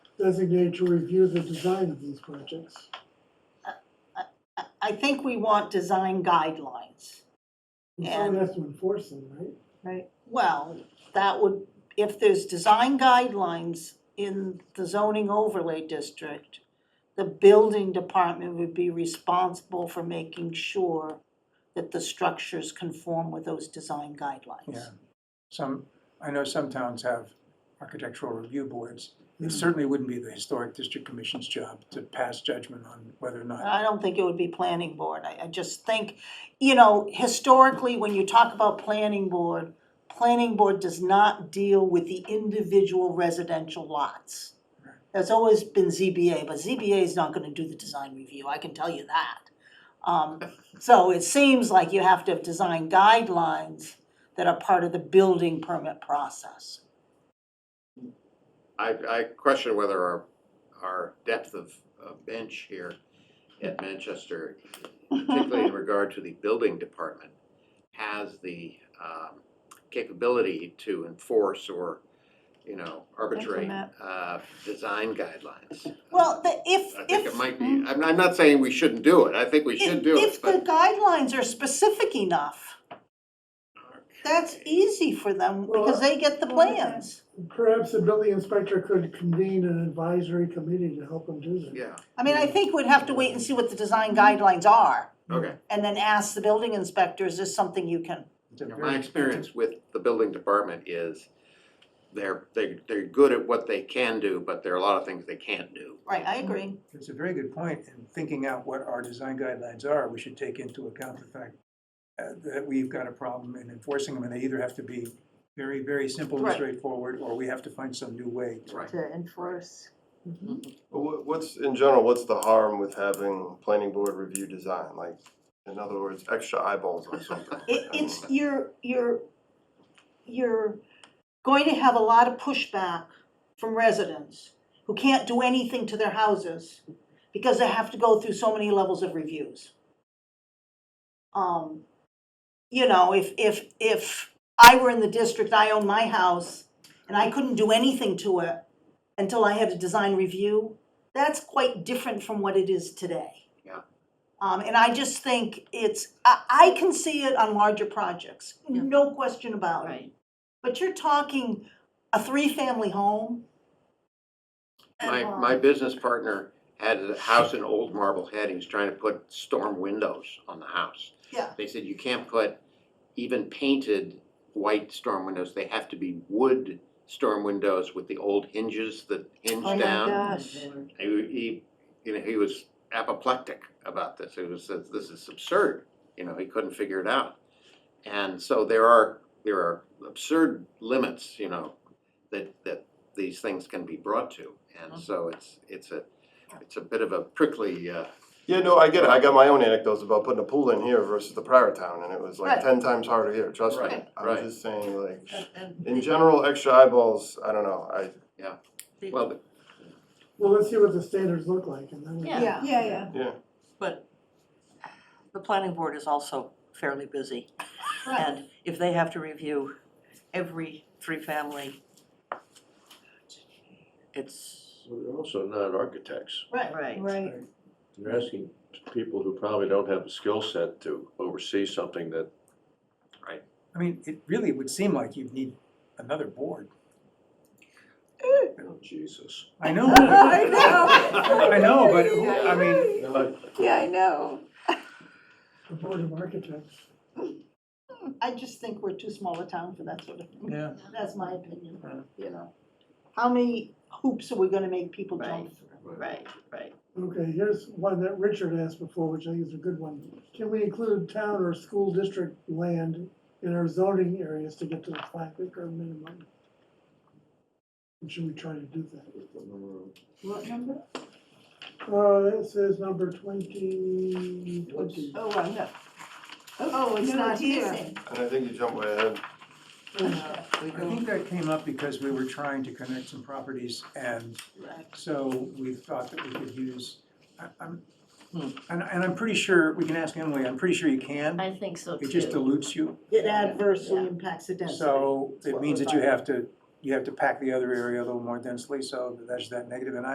designate to review the design of these projects. I- I think we want design guidelines, And someone And- has to enforce them, right? right? Well, that would, if there's design guidelines in the zoning overlay district, the building department would be responsible for making sure that the structures conform with those design guidelines. Yeah, some, I know some towns have architectural review boards. It Mm-hmm. certainly wouldn't be the Historic District Commission's job to pass judgment on whether or not. I don't think it would be planning board, I, I just think, you know, historically, when you talk about planning board, planning board does not deal with the individual residential lots. That's always been ZBA, but ZBA is not gonna do the design review, I can tell you that. Um, so it seems like you have to have design guidelines that are part of the building permit process. I, I question whether our, our depth of, of bench here at Manchester, particularly in regard to the building department, has the, um, capability to enforce or, you know, arbitrate, Implement. uh, design guidelines. Um, Well, the, if, I think if Mhm. it might be, I'm, I'm not saying we shouldn't do it, I think we should do If it, if the but. guidelines are specific enough, that's e easy for them because they get the plans. Perhaps the building inspector could convene an advisory committee to help them do that. Yeah, I mean, I think we'd have to wait and see what the design guidelines are okay. and then ask the building inspector, is this something you can? It's a You know, very- My experience with the building department is they're, they, they're good at what they can do, but there are a lot of things they can't do. Right, I agree. It's a very good point, in thinking out what our design guidelines are, we should take into account the fact uh, that we've got a problem in enforcing them, and they either have to be very, very simple and Right. straightforward, or we have to find some new way to Right. to enforce. Well, what- What's, in general, what's the harm with having planning board review design? Like, in other words, extra eyeballs on something? Mm-hmm. It, I it's, mean, you're, you're, you're going to have a lot of pushback from residents who can't do anything to their houses because they have to go through so many levels of reviews. Um, you know, if, if, if I were in the district, I own my house, and I couldn't do anything to it until I had a design review, that's quite different from what it is today. Yeah. Um, and I just think it's, I, I can see it on larger projects, Yeah. no question about it. But you're talking a three-family home? My, my business partner had a house in Old Marblehead, he was trying to put storm windows on the house. Yeah. They said you can't put even painted white storm windows, they have to be wood storm windows with the old hinges that hinge Oh my down. gosh. He, he, you know, he was apoplectic about this, he was, says, this is absurd, you know, he couldn't figure it out. And so there are, there are absurd limits, you know, that, that these things can be brought to. And so it's, it's a, it's a bit of a prickly, uh, Yeah, no, I get it. I got my own anecdotes about putting a pool in here versus the prior town, and it was like Right. ten times harder here, trust me. Right, I'm right. just saying, like, And- in general, extra eyeballs, I don't know, I, well, the- Well, let's see what the standards look like and then. we- Yeah. Yeah, yeah. yeah. But the planning board is also fairly busy. Right. And if they have to review every three-family, it's, Well, They're also not architects. Right. right. Right. You're asking people who probably don't have the skill set to oversee something that I mean, it really would seem like you'd need another board. Oh, Jesus. I know, I I know. know, but who- I mean, Yeah, I know. The Board of Architects. I just think we're too small a town for that sort of thing. yeah, That's my opinion, Yeah. you know. How many hoops are we gonna make people jump Right. through? Right, right. Okay, here's one that Richard asked before, which I think is a good one. Can we include town or school district land in our zoning areas to get to the five acre minimum? And Should we try to do that? What number? Uh, it says number twenty, twenty. Oh, I'm not. Oh, it's no, not it here. isn't. And I think you jump way ahead. We I think do, that came up because we were trying to connect some properties and Right. so we thought that we could use, I, I'm, Hmm. and, and I'm pretty sure, we can ask Emily, I'm pretty sure you can. I think so It just too. dilutes you, It adversely Yeah. impacts the density. so That's it what means we're that you finding. have to, you have to pack the other area a little more densely, so that's that negative. And I.